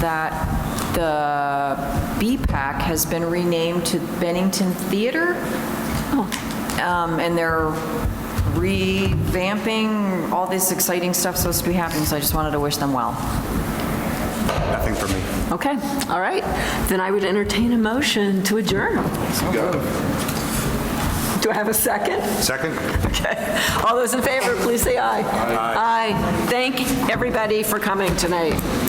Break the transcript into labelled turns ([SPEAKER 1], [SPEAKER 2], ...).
[SPEAKER 1] that the BPAC has been renamed to Bennington Theater. Um, And they're revamping, all this exciting stuff supposed to be happening, so I just wanted to wish them well.
[SPEAKER 2] Nothing for me.
[SPEAKER 3] Okay, all right. Then I would entertain a motion to adjourn. Do I have a second?
[SPEAKER 2] Second?
[SPEAKER 3] Okay. All those in favor, please say aye. Aye. Thank everybody for coming tonight.